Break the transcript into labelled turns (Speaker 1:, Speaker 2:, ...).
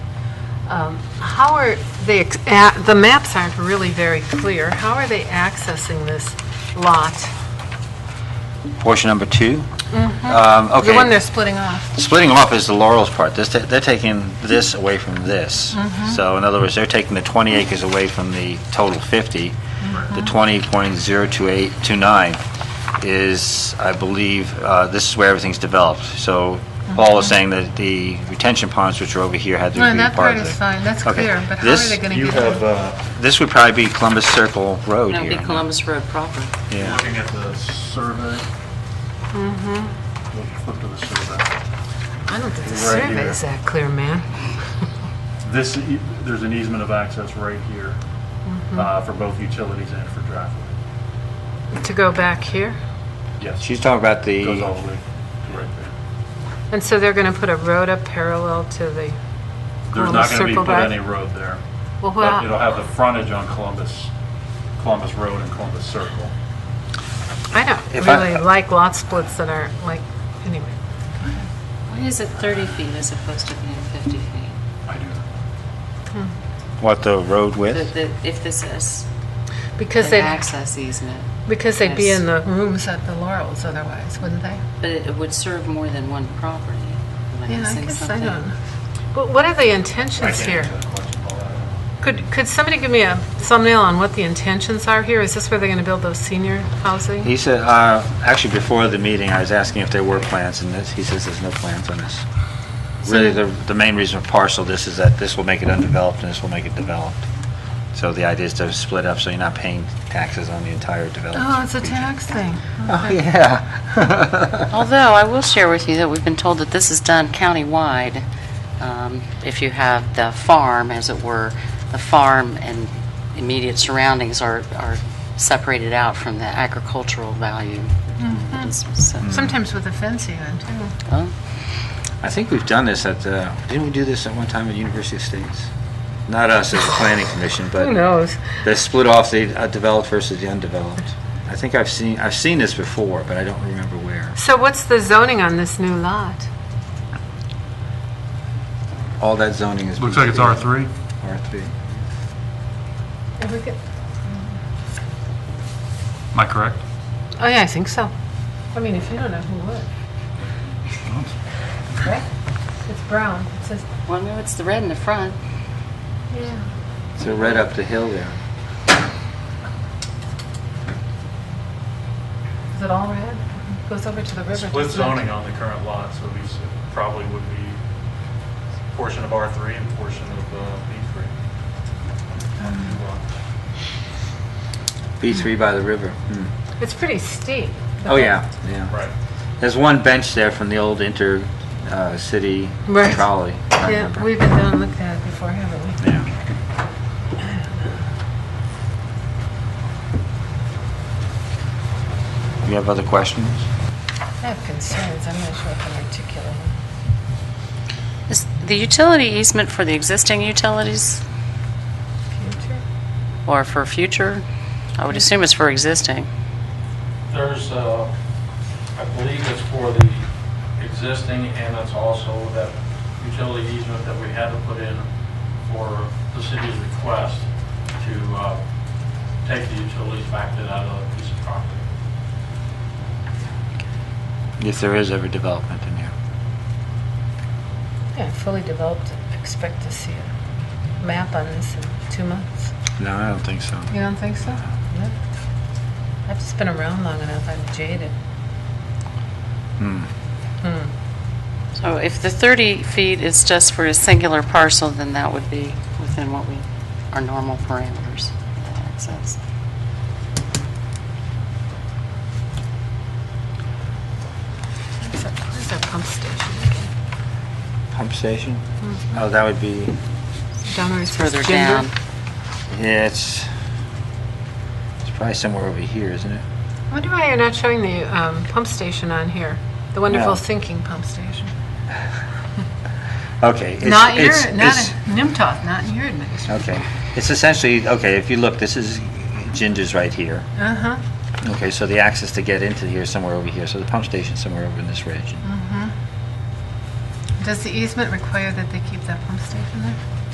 Speaker 1: Um, How are they, ex- a- the maps aren't really very clear. How are they accessing this lot?
Speaker 2: Portion number two? Um,
Speaker 1: Mm-hmm. The one they're
Speaker 2: Okay,
Speaker 1: splitting off.
Speaker 2: splitting them off is the Laurel's part. This, they're taking this away from this.
Speaker 1: Mm-hmm.
Speaker 2: So in other words, they're taking the 20 acres away from the total 50.
Speaker 1: Mm-hmm.
Speaker 2: The 20.02829 is, I believe, uh, this is where everything's developed. So Paul was saying that the retention ponds, which are over here, had to be part
Speaker 1: No,
Speaker 2: of
Speaker 1: Mm-hmm.
Speaker 2: the...
Speaker 1: that part is fine, that's
Speaker 2: Okay.
Speaker 1: clear, but how are
Speaker 2: This-
Speaker 1: they going to
Speaker 3: You
Speaker 1: get
Speaker 3: have,
Speaker 1: them?
Speaker 3: uh,
Speaker 2: This would probably be Columbus Circle Road
Speaker 4: That
Speaker 2: here.
Speaker 4: would be Columbus Road proper.
Speaker 2: Yeah.
Speaker 3: looking at the survey.
Speaker 1: Mm-hmm.
Speaker 3: We'll Flip to the survey.
Speaker 1: I don't think the
Speaker 3: right here.
Speaker 1: survey's that clear, man.
Speaker 3: This, e- there's an easement of access right here
Speaker 1: Mm-hmm.
Speaker 3: uh, for both utilities and for driveway.
Speaker 1: To go back here?
Speaker 3: Yes,
Speaker 2: She's talking about the...
Speaker 3: goes all the way to right there.
Speaker 1: And so they're going to put a road up parallel to the,
Speaker 3: There's
Speaker 1: Columbus
Speaker 3: not going to be
Speaker 1: Circle
Speaker 3: put
Speaker 1: Drive?
Speaker 3: any road there.
Speaker 1: well,
Speaker 3: but It'll
Speaker 1: well,
Speaker 3: have the frontage on Columbus, Columbus Road and Columbus Circle.
Speaker 1: I don't
Speaker 2: If I-
Speaker 1: really like lot splits that aren't like, anyway.
Speaker 4: Why is it 30 feet as opposed to being 50 feet?
Speaker 3: I do.
Speaker 2: What, the road
Speaker 4: The-
Speaker 2: width?
Speaker 4: the- If this is
Speaker 1: Because
Speaker 4: an
Speaker 1: they'd,
Speaker 4: access easement,
Speaker 1: because they'd be
Speaker 4: Yes.
Speaker 1: in the rooms at the Laurels otherwise, wouldn't they?
Speaker 4: but it it would serve more than one property. Am
Speaker 1: Yeah, I
Speaker 4: missing
Speaker 1: guess I
Speaker 4: something?
Speaker 1: don't. But what are the
Speaker 3: I
Speaker 1: intentions
Speaker 3: can't
Speaker 1: here?
Speaker 3: answer that question, Paul.
Speaker 1: Could, could somebody give me a thumbnail on what the intentions are here? Is this where they're going to build those senior housing?
Speaker 2: He said, uh, actually, before the meeting, I was asking if there were plans, and this, he says there's no plans on this. Really, the, the main reason for parcel this is that this will make it undeveloped, and this will make it developed. So the idea is to split up, so you're not paying taxes on the entire development.
Speaker 1: Oh, it's a tax thing.
Speaker 2: Oh, yeah.
Speaker 4: Although, I will share with you that we've been told that this is done countywide. Um, If you have the farm, as it were, the farm and immediate surroundings are are separated out from the agricultural value.
Speaker 1: Mm-hmm.
Speaker 4: So-
Speaker 1: Sometimes with a fence even, too.
Speaker 4: oh,
Speaker 2: I think we've done this at, uh, didn't we do this at one time at University of States? Not us as a planning commission, but...
Speaker 1: Who knows?
Speaker 2: They split off the uh, developed versus the undeveloped. I think I've seen, I've seen this before, but I don't remember where.
Speaker 1: So what's the zoning on this new lot?
Speaker 2: All that zoning is.
Speaker 3: Looks like it's
Speaker 2: B3.
Speaker 3: R3.
Speaker 2: R3.
Speaker 3: Am I correct?
Speaker 1: Oh, yeah, I think so. I mean, if you don't know, who would? Right? It's brown. It says,
Speaker 4: Well, no, it's the red in the front.
Speaker 1: yeah.
Speaker 2: So right up the hill there.
Speaker 1: Is it all red? Goes over to the river.
Speaker 3: Split
Speaker 1: doesn't it?
Speaker 3: zoning on the current lot, so we s- probably would be portion of R3 and portion of uh, B3. On the new lot.
Speaker 2: B3 by the river. Hmm.
Speaker 1: It's pretty steep.
Speaker 2: Oh, yeah, yeah.
Speaker 3: Right.
Speaker 2: There's one bench there from the old inter-city
Speaker 1: Right.
Speaker 2: trolley. I
Speaker 1: Yeah,
Speaker 2: remember.
Speaker 1: we've been down and looked at it before, haven't we?
Speaker 2: Yeah. You have other questions?
Speaker 1: I have concerns, I'm not sure if I'm articulating.
Speaker 4: Is the utility easement for the existing utilities
Speaker 1: Future?
Speaker 4: or for future? I would assume it's for existing.
Speaker 5: There's, uh, I believe it's for the existing, and it's also that utility easement that we had to put in for the city's request to uh, take the utilities back to that other piece of property.
Speaker 2: If there is ever development in here.
Speaker 1: Yeah, fully developed, expect to see a map on this in two months.
Speaker 2: No, I don't think so.
Speaker 1: You don't think so? No. I've just been around long enough, I'm jaded.
Speaker 2: Hmm.
Speaker 4: So if the 30 feet is just for a singular parcel, then that would be within what we, our normal parameters of access.
Speaker 1: Where's our- Where's our pump station again?
Speaker 2: Pump station?
Speaker 1: Mm-hmm.
Speaker 2: Oh, that would be,
Speaker 1: Down where it
Speaker 4: It's
Speaker 1: says
Speaker 4: further
Speaker 1: gender?
Speaker 4: down.
Speaker 2: yeah, it's, it's probably somewhere over here, isn't it?
Speaker 1: I wonder why you're not showing the um, pump station on here, the wonderful
Speaker 2: No.
Speaker 1: sinking pump station.
Speaker 2: Okay. it's-
Speaker 1: Not your,
Speaker 2: it's-
Speaker 1: not
Speaker 2: it's-
Speaker 1: in Nimtoff, not in your administration.
Speaker 2: Okay. It's essentially, okay, if you look, this is, Ginger's right here.
Speaker 1: Uh-huh.
Speaker 2: Okay, so the access to get into here is somewhere over here, so the pump station's somewhere over in this region.
Speaker 1: Does the easement require that they keep that pump station there?